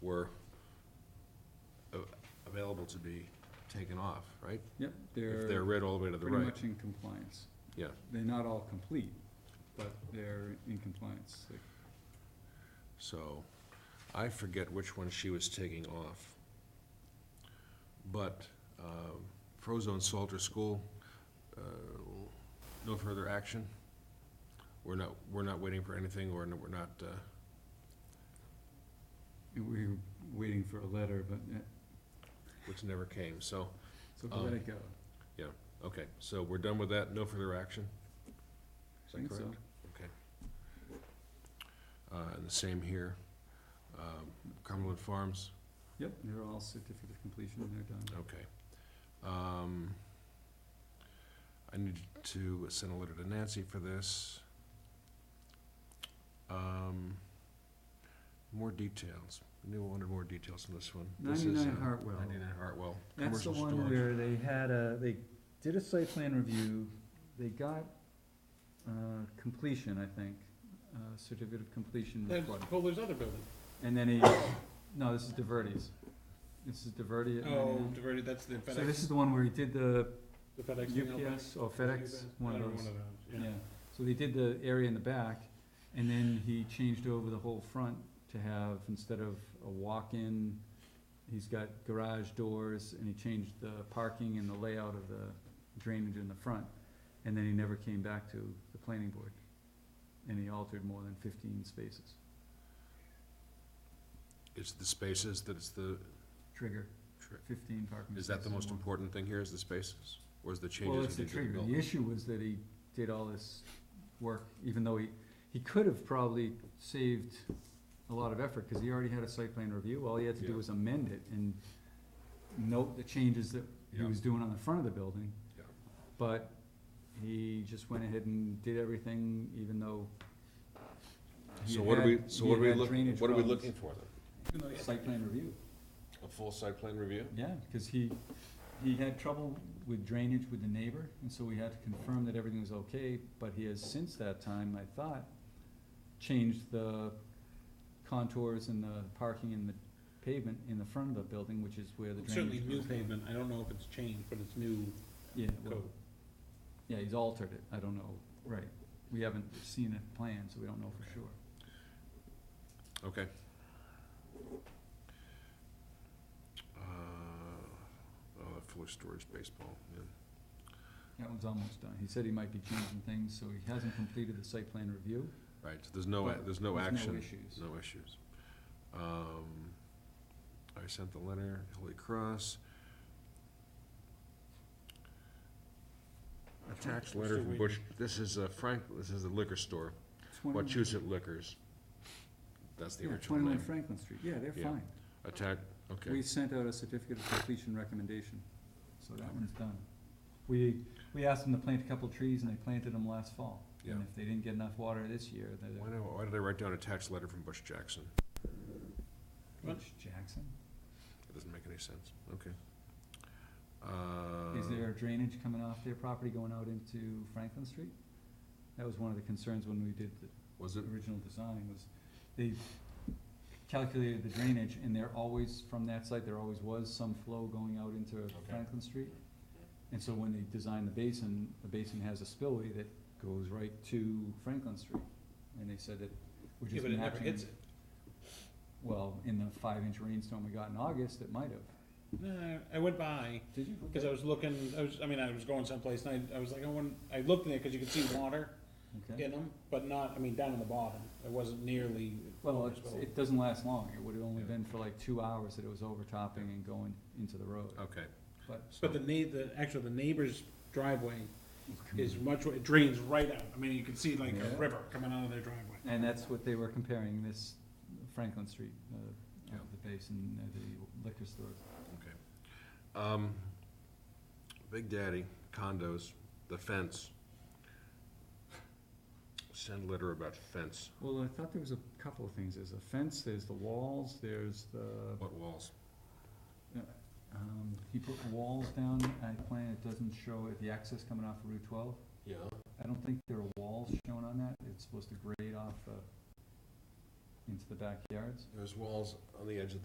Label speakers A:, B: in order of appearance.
A: were a- available to be taken off, right?
B: Yep,
A: If they're
B: they're
A: read all the way to the
B: pretty
A: right,
B: much in compliance.
A: yeah.
B: They're not all complete, but they're in compliance. Like,
A: So, I forget which one she was taking off. But, um, Frozone Salter School, uh, no further action? We're not, we're not waiting for anything, or no- we're not, uh,
B: and we were waiting for a letter, but, uh,
A: which never came, so,
B: so we let
A: Um,
B: it go.
A: okay, so we're done with that, no further action? Is that
B: Think so.
A: correct? Okay. Uh, and the same here, um, Cumberland Farms,
B: Yep, they're all certificate of completion, they're done.
A: Okay. Um, I need to send a letter to Nancy for this. Um, more details. I knew I wanted more details on this one. This is,
B: Ninety-nine
A: uh,
B: Hartwell.
A: Ninety-nine Hartwell.
B: That's the
A: commercial
B: one
A: storage.
B: where they had a, they did a site plan review, they got, uh, completion, I think, uh, certificate of completion
C: Then
B: recorded.
C: Kohler's other building.
B: And then he, no, this is DeVerdes. This is DeVerde at
C: Oh,
B: 99.
C: diverted, that's the FedEx.
B: So this is the one where he did the
C: The FedEx. thing out back.
B: UPS or FedEx, one
C: Whatever,
B: of those.
C: yeah.
B: Yeah, so they did the area in the back, and then he changed over the whole front to have, instead of a walk-in, he's got garage doors, and he changed the parking and the layout of the drainage in the front, and then he never came back to the planning board, and he altered more than fifteen spaces.
A: It's the spaces that it's the,
B: Trigger,
A: tri-
B: fifteen parking
A: is
B: spaces.
A: that the most
B: more.
A: important thing here is the spaces? Or is the
B: Well,
A: changes
B: it's
A: he
B: the
A: did to the
B: trigger, the
A: building?
B: issue was that he did all this work, even though he, he could have probably saved a lot of effort, cause he already had a site plan review, all he had to do
A: Yeah.
B: was amend it and note the changes that he
A: Yeah.
B: was doing on the front of the building.
A: Yeah.
B: But he just went ahead and did everything, even though he
A: So
B: had
A: what are we,
B: had-
A: so
B: he
A: what are we
B: had
A: looking,
B: drainage
A: what are we
B: problems.
A: looking for then?
B: Site plan review.
A: A full site plan review?
B: Yeah, cause he, he had trouble with drainage with the neighbor, and so we had to confirm that everything was okay, but he has since that time, I thought, changed the contours and the parking and the pavement in the front of the building, which is where the drainage.
C: Certainly new
B: goes.
C: pavement, I don't know if it's changed, but it's new
B: Yeah, well,
C: code.
B: yeah, he's altered it, I don't know, right, we haven't seen a plan, so we don't know for sure.
A: Okay. Uh, oh, fuller storage baseball, yeah.
B: That one's almost done, he said he might be changing things, so he hasn't completed the site plan review,
A: Right, so there's no, a- there's no
B: there's no
A: action.
B: issues.
A: No issues. Um, I sent the letter, Holy Cross. Attached letter
C: Still
A: from Bush, this is uh, Frank, this is the liquor store, Wachusett Liquors. That's the
B: Yeah,
A: original
B: twenty-one
A: name.
B: Franklin Street, yeah, they're
A: Yeah.
B: fine.
A: Attack, okay.
B: We sent out a certificate of completion recommendation, so that one's done. We, we asked them to plant a couple trees and they planted them last fall.
A: Yeah.
B: And if they didn't get enough water this year,
A: Why
B: they're,
A: did I- why did I write down attached letter from Bush Jackson?
C: What?
B: Mitch Jackson,
A: That doesn't make any sense, okay.
B: is
A: Uh,
B: there drainage coming off their property going out into Franklin Street? That was one of the concerns when we did the
A: Uh, Was it,
B: original design was they calculated the drainage and there always, from that site, there always was some flow going out into Franklin Street. And so when they designed the basin, the basin has a spillway that goes right to Franklin Street. And they said that we're
C: Yeah,
B: just
C: but it never
B: matching,
C: hits it.
B: well, in the five inch rainstorm we got in August, it might have.
C: No, I went by,
B: Did you?
C: cause I was looking, I was, I mean, I was going someplace and I, I was like, I want, I looked in there, cause you could see water
B: Okay,
C: in them, but not, I mean, down in the bottom. It wasn't nearly.
B: well, it's, it doesn't last long, it would've only
A: Yeah.
B: been for like two hours that it was overtopping and going into the road.
A: okay.
B: But-
A: So-
C: But the neigh, the, actually, the neighbor's driveway is much, it drains right out. I mean, you can see like
B: Mm-hmm. Yeah.
C: a river coming out of their driveway.
B: And that's what they were comparing, this Franklin Street, uh,
A: Yeah.
B: of the basin, uh, the liquor stores.
A: Okay. Um, Big Daddy condos, the fence. Send letter about fence.
B: Well, I thought there was a couple of things, there's a fence, there's the walls, there's the
A: What walls?
B: Um, he put walls down, I plan it doesn't show it, the access coming off of Route twelve.
A: Yeah.
B: I don't think there are walls shown on that, it's supposed to grade off, uh, into the backyards.
A: There's walls on the edge of